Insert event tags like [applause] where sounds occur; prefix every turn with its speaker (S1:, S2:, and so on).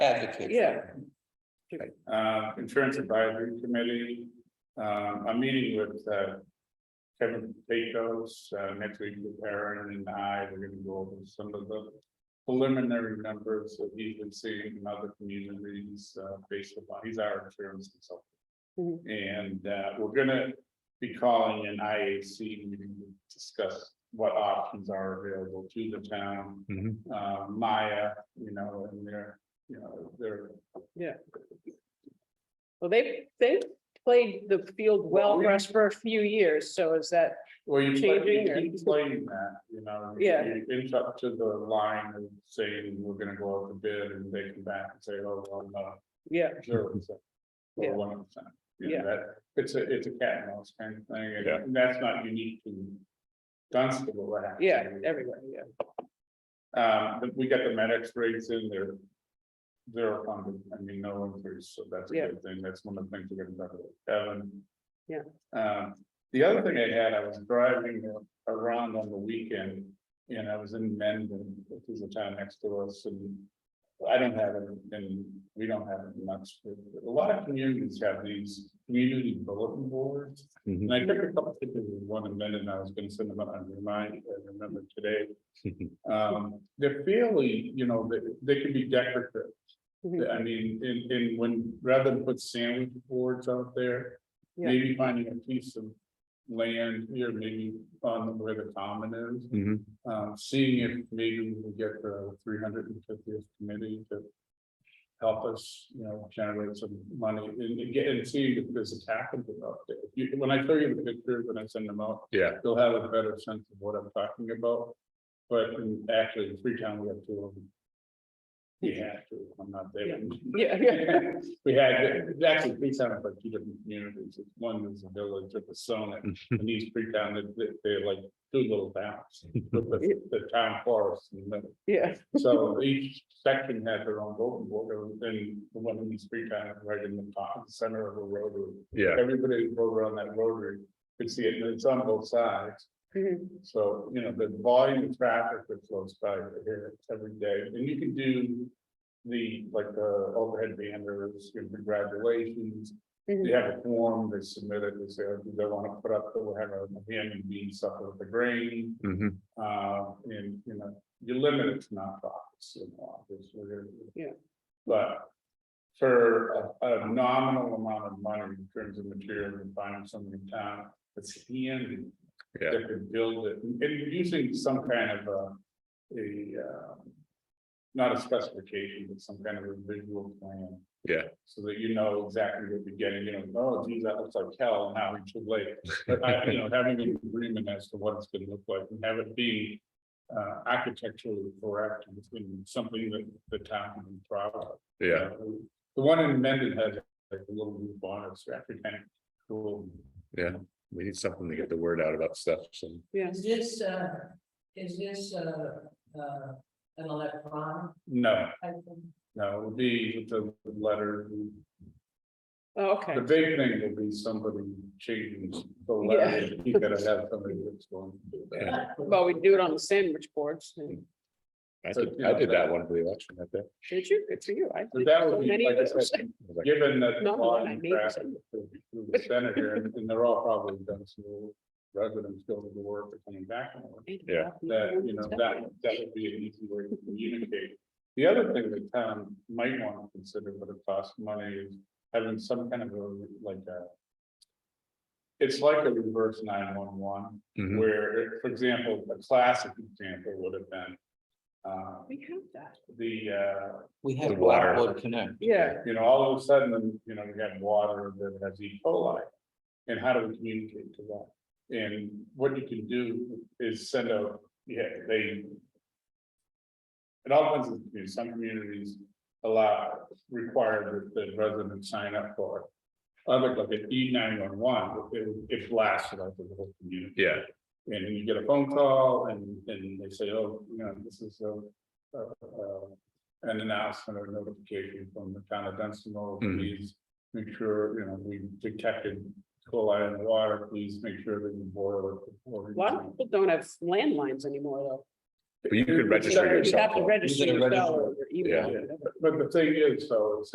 S1: advocate.
S2: Yeah.
S3: Uh, insurance advisory committee, um, I'm meeting with, uh. Kevin Pecos, uh, next week with Aaron and I, we're gonna go over some of the. Preliminary numbers that he's been seeing in other communities, uh, based upon, he's our insurance consultant. And, uh, we're gonna be calling an IAC meeting to discuss what options are available to the town. Uh, Maya, you know, and their, you know, their
S2: Well, they, they played the field
S3: Well,
S2: well for
S3: we-
S2: us for a few years, so is that,
S3: Well, you play,
S2: changing or-
S3: you keep playing that, you know. you-
S2: Yeah.
S3: You inch up to the line and saying, we're gonna go out to bid and they come back and say, oh, well, no,
S2: yeah,
S3: zero percent.
S2: Yeah.
S3: Or one percent. You know,
S2: Yeah.
S3: that- It's a, it's a cat and mouse kind of thing, and-
S4: Yeah.
S3: and that's not unique to Dunstable. what happens
S2: yeah, everywhere, yeah.
S3: Um, but we got the medics rates in there. Zero funded, I mean, no increase, so that's a
S2: Yeah.
S3: good thing, that's one of the things we're gonna talk about, Evan.
S2: Yeah.
S3: Um, the other thing I had, I was driving around on the weekend, and I was in Mendon, which is a town next to us, and. I don't have it, and we don't have it much, but a lot of communities have these community bulletin boards.
S4: Mhm.
S3: And I took a couple pictures of one in Mendon, I was gonna send them out, I remind, I remember today. Um, they're fairly, you know, they, they can be decorative.
S2: Mhm.
S3: I mean, in, in when, rather than put sandwich boards out there,
S2: Yeah.
S3: maybe finding a piece of land here, maybe on where the common is.
S4: Mhm.
S3: Um, seeing if maybe we can get the three hundred and fiftieth committee to help us, you know, generate some money and and get and see if there's a capital out there. You- When I show you the pictures, when I send them out,
S4: Yeah,
S3: you'll have a better sense of what I'm talking about. But in- actually, in Freetown, we have two of them. We have to, I'm not there.
S2: Yeah, yeah.
S3: [laughs] We had, actually, Freetown is like two different communities, It's one is a village of the Sonnet, and these Freetown, they- they- they're like two little towns. with The the town forest in the middle,
S2: Yeah,
S3: so each section had their own voting board, and the one in East Freetown, right in the top, center of the rotary.
S4: yeah,
S3: Everybody who rode around that rotary could see it, and it's on both sides.
S2: Mhm.
S3: So, you know, the volume of traffic that flows by here every day, and you can do. The, like, the overhead banners, your congratulations,
S2: Mhm.
S3: they have a form, they submit it, they say, oh, do they wanna put up, we'll have a ham and bean supper with the grain.
S4: mhm,
S3: Uh, and, you know, you limit it to nonprofits, you know, obviously. there-
S2: Yeah.
S3: But for a, a nominal amount of money in terms of material and finding something in town, it's handy.
S4: Yeah.
S3: That could build it, and using some kind of a, a, uh. Not a specification, but some kind of a visual plan.
S4: Yeah.
S3: So that you know exactly what you're getting, you know, oh geez, that looks like hell, and how we should lay it. But I, you know, having an agreement as to what it's gonna look like and have it be. Uh, architecturally correct and it's gonna be something that the town can be proud of. you
S4: yeah,
S3: know. The one in Mendon has like a little roof on it, it's actually kind of cool.
S4: yeah. We need something to get the word out about stuff, so,
S2: yeah.
S5: Is this, uh, is this, uh, uh, an electronic?
S3: No,
S5: type thing?
S3: no, it would be with the letter.
S2: Oh, Okay,
S3: The big thing would be somebody changing the letter. You gotta have somebody that's going to do that.
S2: well, we do it on the sandwich boards, and-
S4: I did, I did that one for the election, I think.
S2: did you, good for you, I.
S3: But that would be,
S2: Many
S3: like I
S2: of those.
S3: said,
S4: It was like,
S3: given that.
S2: No, no,
S3: volume
S2: I
S3: of
S2: made the
S3: traffic
S2: same.
S3: through through the center here, and and they're all probably done, so residents go to the work or coming back from work.
S4: Yeah.
S3: That, you know, that, that would be an easy way to communicate. The other thing that town might want to consider, but it costs money, is having some kind of a, like a. It's like a reverse nine one one,
S4: mhm,
S3: where, for example, a classic example would have been. Uh,
S2: We have that.
S3: the, uh,
S1: We have
S4: The water.
S1: Blackboard Connect.
S2: Yeah,
S3: you know, all of a sudden, you know, we got water that has E. coli. And how do we communicate to that? And what you can do is send out, yeah, they. It all depends, on the community. some communities allow, require that the residents sign up for it. Other, like at E nine one one, it, it blasts it out to the whole community.
S4: Yeah,
S3: And you get a phone call and, and they say, oh, you know, this is a, a, a- an announcement or notification from the town of Dunstable.
S4: Mhm.
S3: Please make sure, you know, we detected coli in the water, please make sure that you boil it. before
S2: a
S3: you
S2: lot of people don't have landlines anymore, though.
S4: But you could register
S2: You
S4: yourself.
S2: have to register
S1: You gotta
S2: your
S1: register.
S2: dollar or email.
S4: Yeah.
S2: or whatever.
S3: But the thing is, though, is